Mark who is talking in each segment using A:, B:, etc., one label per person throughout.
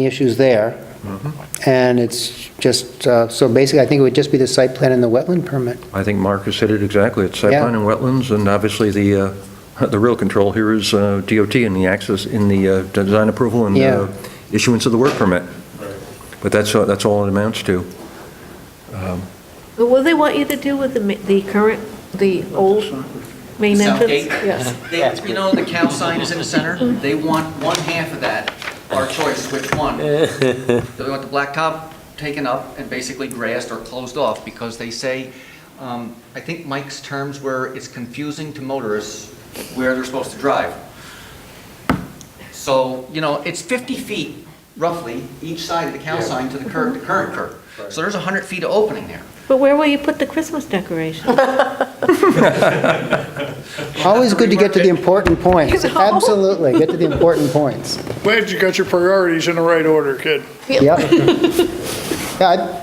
A: any issues there. And it's just, uh, so basically, I think it would just be the site plan and the wetland permit.
B: I think Mark has said it exactly. It's site
A: Yeah.
B: plan and wetlands, and obviously the, uh, the real control here is uh, DOT in the access, in the uh, design approval and
A: Yeah.
B: uh, issuance of the work permit. But that's, uh, that's all it amounts to.
C: But What do they want you to do with the, ma- the current, the old main
D: The
C: entrance?
D: south gate?
C: Yes.
D: They, you know, the cow sign is in the center, they want one half of that, our choice, is which one? Do we want the black top taken up and basically grassed or closed off? Because they say, um, I think Mike's terms were, it's confusing to motorists where they're supposed to drive. So, you know, it's 50 feet roughly, each side of the cow sign to the curb, the current curb. So there's 100 feet of opening there.
C: But where will you put the Christmas decoration?
A: Always good to get to the important points.
C: You know?
A: Absolutely, get to the important points.
E: Glad you got your priorities in the right order, kid.
A: Yep. Yeah, I-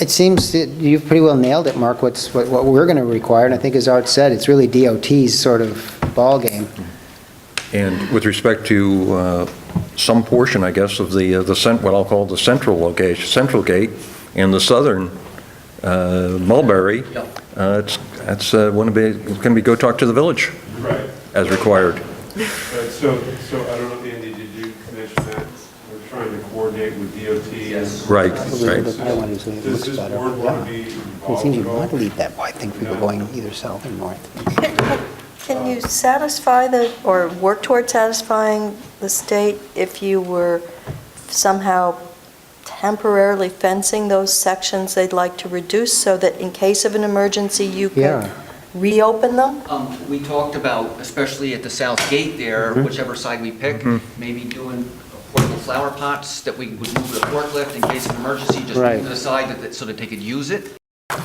A: it seems that you've pretty well nailed it, Mark, what's, what what we're going to require, and I think as Art said, it's really DOT's sort of ballgame.
B: And with respect to uh, some portion, I guess, of the, uh, the cent, what I'll call the central location, central gate, and the southern uh, Mulberry,
D: Yep.
B: uh, it's, that's, going to be, it's going to be go talk to the village
F: Right,
B: as required.
F: but so, so I don't know, Andy, did you mention that we're trying to coordinate with DOT?
D: Yes.
B: Right,
A: Probably the
B: right.
A: bit I want is it looks
F: Does this
A: better.
F: board want to be
A: It
F: involved
A: seems
F: at
A: you
F: all?
A: want to leave that wide thing for people going either south or north.
G: Can you satisfy the, or work toward satisfying the state if you were somehow temporarily fencing those sections they'd like to reduce so that in case of an emergency, you
A: Yeah.
G: could reopen them?
D: Um, We talked about, especially at the south gate there, whichever side we pick, maybe doing portable flower pots that we would move with a forklift in case of emergency, just
A: Right.
D: move to the side that- that- so that they could use it.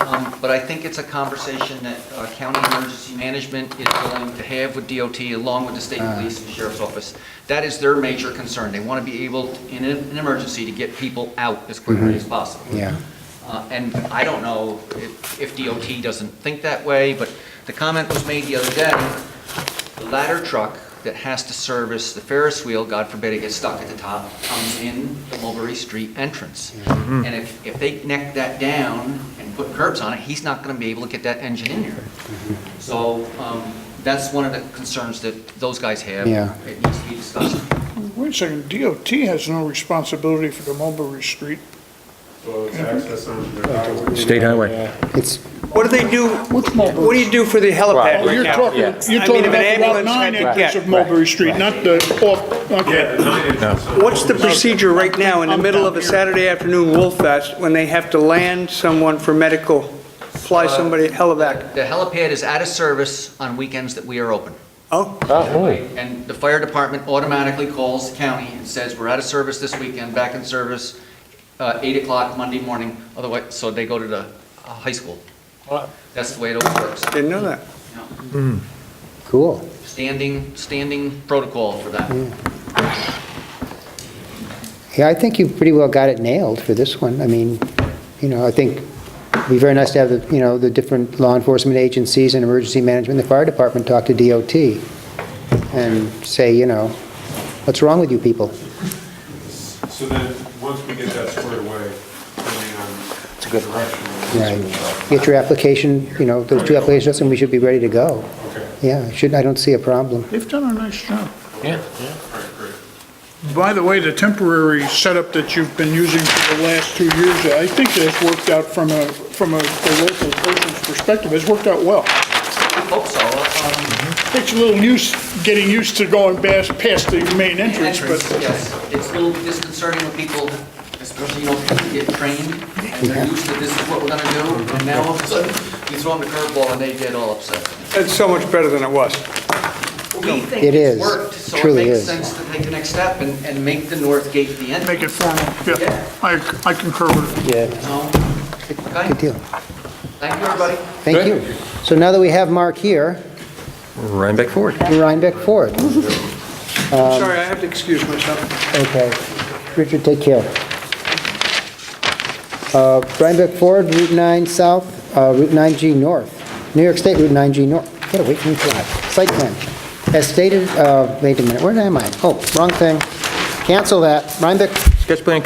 D: Um, But I think it's a conversation that uh, county emergency management is willing to have with DOT along with the state police and sheriff's office. That is their major concern. They want to be able, to- in an an emergency, to get people out as quickly as possible.
A: Yeah.
D: Uh, And I don't know if if DOT doesn't think that way, but the comment was made the other day, the ladder truck that has to service the Ferris wheel, God forbid it gets stuck at the top, comes in the Mulberry Street entrance. And if, if they neck that down and put curbs on it, he's not going to be able to get that engine in there.
A: Mm-hmm.
D: So um, that's one of the concerns that those guys have.
A: Yeah.
D: It needs to be discussed.
E: Wait a second, DOT has no responsibility for the Mulberry Street.
F: Well, it's access on their highway.
B: State highway.
A: It's,
H: What do they do, what do you do for the helipad
E: Oh,
H: right
E: you're
H: now?
E: talking,
H: I
E: you're
H: mean,
E: talking
H: if an
E: about the Route
H: ambulance
E: 9
H: had to
E: entrance
H: get-
E: of Mulberry Street, not the, off,
F: Yeah,
E: okay.
F: the nine entrance on-
H: What's the procedure right now in the middle of a Saturday afternoon Wolf Fest when they have to land someone for medical, fly somebody helivac?
D: The helipad is out of service on weekends that we are open.
H: Oh,
D: And the fire department automatically calls the county and says, we're out of service this weekend, back in service, uh, 8 o'clock Monday morning, otherwise, so they go to the uh, high school. That's the way it all works.
H: didn't know that.
A: cool.
D: Standing, standing protocol for that.
A: Yeah, I think you pretty well got it nailed for this one. I mean, you know, I think it'd be very nice to have, the you know, the different law enforcement agencies and emergency management, the fire department talk to DOT and say, you know, what's wrong with you people?
F: So then, once we get that squared away, depending on direction.
A: Right. Get your application, you know, those two applications, and we should be ready to go.
F: Okay,
A: Yeah, should, I don't see a problem.
E: They've done a nice job.
F: all right, great.
E: By the way, the temporary setup that you've been using for the last two years, I think has worked out from a, from a a local person's perspective, it's worked out well.
D: Hope so. um,
E: Takes a little use, getting used to going past, past the main entrance,
D: Entrance,
E: but
D: yes. It's a little disconcerting when people, especially, you know, people get trained, and they're used to this is what we're gonna do, and now all of a sudden, you throw them a curveball and they get all upset.
H: That's so much better than it was.
D: We think
A: It
D: it's
A: is.
D: worked,
A: It
D: so it
A: truly
D: makes
A: is.
D: sense to take the next step and, and make the north gate the entrance.
E: make it formal, yeah. I I concur with it.
D: No.
A: Good
D: Okay,
A: deal.
D: thank you, everybody.
A: Thank you. So now that we have Mark here,
B: Rhinebeck Ford.
A: Rhinebeck Ford.
E: Um,
H: I'm sorry, I have to excuse myself.
A: Okay. Richard, take care. Uh, Rhinebeck Ford, Route 9 South, uh, Route 9G North, New York State Route 9G North. Get away from me, fly. Site plan. As stated, uh, wait a minute, where am I? Oh, wrong thing. Cancel that. Rhinebeck
B: Sketch plan